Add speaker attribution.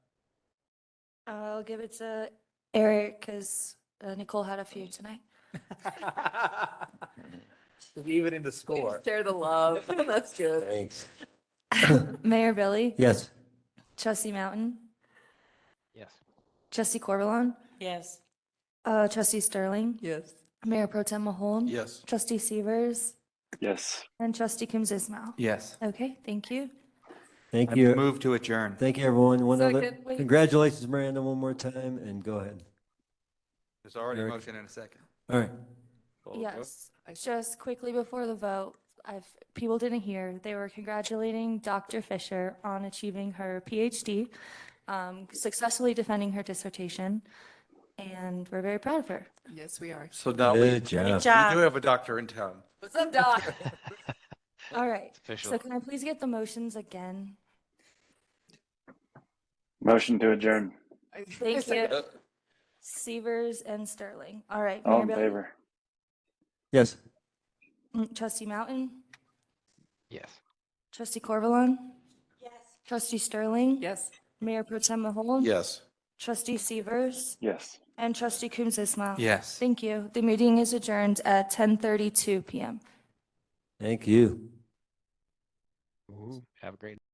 Speaker 1: I'll give it to Eric because Nicole had a few tonight.
Speaker 2: Even in the score.
Speaker 3: Share the love. That's good.
Speaker 4: Thanks.
Speaker 1: Mayor Billy,
Speaker 4: Yes.
Speaker 1: Trustee Mountain,
Speaker 2: Yes.
Speaker 1: Trustee Corvallon,
Speaker 3: Yes.
Speaker 1: uh, Trustee Sterling,
Speaker 3: Yes.
Speaker 1: Mayor Pro Tem Mahol.
Speaker 4: Yes.
Speaker 1: Trustee Severs
Speaker 5: Yes.
Speaker 1: and Trustee Kums Ismail.
Speaker 2: Yes.
Speaker 1: Okay, thank you.
Speaker 4: Thank
Speaker 2: I
Speaker 4: you.
Speaker 2: move to adjourn.
Speaker 4: Thank you, everyone. One other,
Speaker 3: Second, wait.
Speaker 4: congratulations, Miranda, one more time, and go ahead.
Speaker 2: There's already a
Speaker 4: Eric.
Speaker 2: motion and a second.
Speaker 4: All right.
Speaker 1: Yes, just quickly before the vote, I've, people didn't hear, they were congratulating Dr. Fisher on achieving her PhD, um, successfully defending her dissertation, and we're very proud of her.
Speaker 3: Yes, we are.
Speaker 2: So now we, we
Speaker 4: Good job.
Speaker 2: do have a doctor in town.
Speaker 3: What's up, Doc?
Speaker 1: All right,
Speaker 6: Official.
Speaker 1: so can I please get the motions again?
Speaker 5: Motion to adjourn.
Speaker 1: Thank you. Severs and Sterling. All right.
Speaker 5: All
Speaker 1: Mayor
Speaker 5: in
Speaker 1: Bailey?
Speaker 5: favor?
Speaker 4: Yes.
Speaker 1: Mm, Trustee Mountain,
Speaker 6: Yes.
Speaker 1: trustee Corvallon? Yes. Trustee Sterling?
Speaker 3: Yes.
Speaker 1: Mayor Pro Tem Mahol?
Speaker 2: Yes.
Speaker 1: Trustee Severs
Speaker 5: Yes.
Speaker 1: and trustee Coombs Ismail?
Speaker 2: Yes.
Speaker 1: Thank you. The meeting is adjourned at 10:32 PM.
Speaker 4: Thank you.
Speaker 6: Have a great